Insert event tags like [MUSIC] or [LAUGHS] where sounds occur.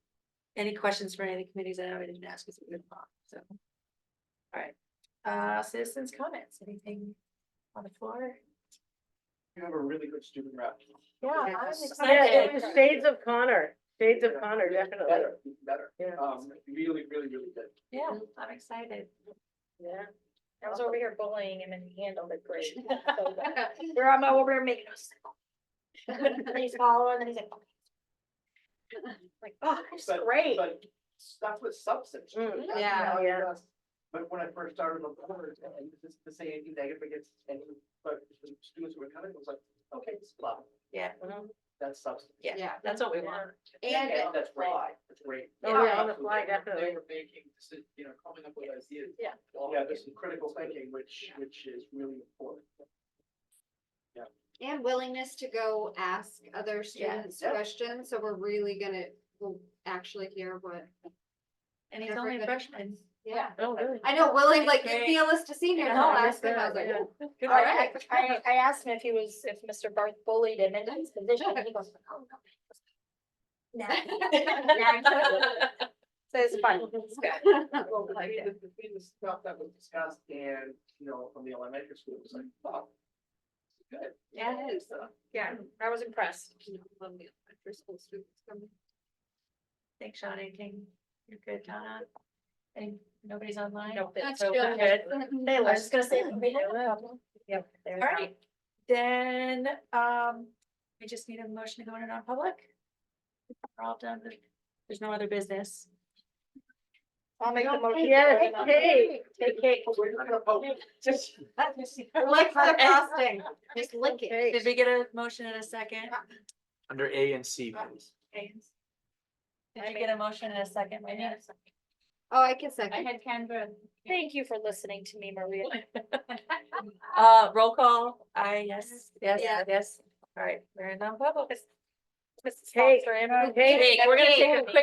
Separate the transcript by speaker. Speaker 1: Any questions for any of the committees? I know I didn't ask, 'cause we didn't talk, so. All right, uh, citizens' comments, anything on the floor?
Speaker 2: You have a really good student rep.
Speaker 3: Yeah,
Speaker 1: Yeah,
Speaker 3: I'm
Speaker 1: it's-
Speaker 3: excited.
Speaker 1: Yeah,
Speaker 3: It was
Speaker 1: it's-
Speaker 3: Shades of Connor, shades of
Speaker 2: Yeah,
Speaker 3: Connor,
Speaker 2: really
Speaker 3: definitely.
Speaker 2: better, even Better,
Speaker 3: Yeah.
Speaker 2: um, really, really, really good.
Speaker 1: Yeah, I'm excited.
Speaker 3: Yeah.
Speaker 4: I was over here bullying him and he handled it [LAUGHS] great. So,
Speaker 1: All
Speaker 4: [LAUGHS] We're on my over here making us. [LAUGHS] And he's following and he's like. [LAUGHS] "Okay." Like, oh, it's
Speaker 2: But-
Speaker 4: great.
Speaker 2: But stuff with substance.
Speaker 3: Mm,
Speaker 2: That's
Speaker 1: yeah,
Speaker 2: how it
Speaker 3: yeah.
Speaker 2: was. But when I first started on board, and this is to say anything negative against any, but the students who were coming, it was like, okay, it's love,
Speaker 3: Mhm.
Speaker 2: that's substance.
Speaker 1: Yeah. that's what we want.
Speaker 4: And
Speaker 2: And that's
Speaker 4: great.
Speaker 2: why, that's great.
Speaker 3: Oh, yeah, on the
Speaker 2: So they
Speaker 3: fly,
Speaker 2: were-
Speaker 3: definitely.
Speaker 2: They were making, deci- you know, coming up with ideas.
Speaker 4: Yeah.
Speaker 2: Yeah, there's some critical thinking, which, which is really important.
Speaker 5: And willingness to go ask other students
Speaker 2: Yeah.
Speaker 5: questions, so we're really gonna, we'll actually hear what.
Speaker 1: And he's only a freshman.
Speaker 5: Yeah.
Speaker 3: Oh, really?
Speaker 5: I know, willing, like,
Speaker 1: Great.
Speaker 5: give me a list of seniors,
Speaker 1: Yeah,
Speaker 5: I'll
Speaker 1: I
Speaker 5: ask them, I was like,
Speaker 3: yeah.
Speaker 5: "Oh,
Speaker 1: Good
Speaker 5: all
Speaker 1: work.
Speaker 5: right.
Speaker 4: I, I asked him if he was, if Mr. Barth bullied him into his position. and He goes, oh, no. No. So it's fun. [LAUGHS] It's good.
Speaker 2: Well, I mean, the, the thing, the stuff that was discussed and, you know, from the elementary school, it was like, wow. it's Good.
Speaker 1: Yeah,
Speaker 5: it is.
Speaker 4: Yeah, I was impressed.
Speaker 5: You know, love the elementary school students coming.
Speaker 1: Thanks, Sean, anything? You're good, Donna? And nobody's online?
Speaker 4: Nope, it's
Speaker 5: That's
Speaker 4: so
Speaker 5: good.
Speaker 4: good.
Speaker 5: [LAUGHS]
Speaker 4: They were
Speaker 1: I
Speaker 4: just gonna say. we had a problem. Yep.
Speaker 1: All right, then, um, we just need a motion to go into non-public. We're all done. with- There's no other business.
Speaker 4: I'll make the motion.
Speaker 3: Yes, hey,
Speaker 4: Take cake.
Speaker 2: We're not gonna vote.
Speaker 4: Just-
Speaker 5: Like for the frosting, just lick it.
Speaker 1: Did we get a motion in a second?
Speaker 6: Under A and C,
Speaker 1: Uh,
Speaker 6: please.
Speaker 1: Did we get a motion in a second? Wait a minute.
Speaker 5: Oh, I can second,
Speaker 4: had Canva. Thank you for listening to me, Maria.
Speaker 1: Uh, roll call, I, yes, yes,
Speaker 5: Yeah.
Speaker 1: yes. All right, we're in non-public.
Speaker 4: Mrs.
Speaker 3: Hey,
Speaker 4: Foster, Emma.
Speaker 3: hey,
Speaker 1: Hey, we're gonna take a quick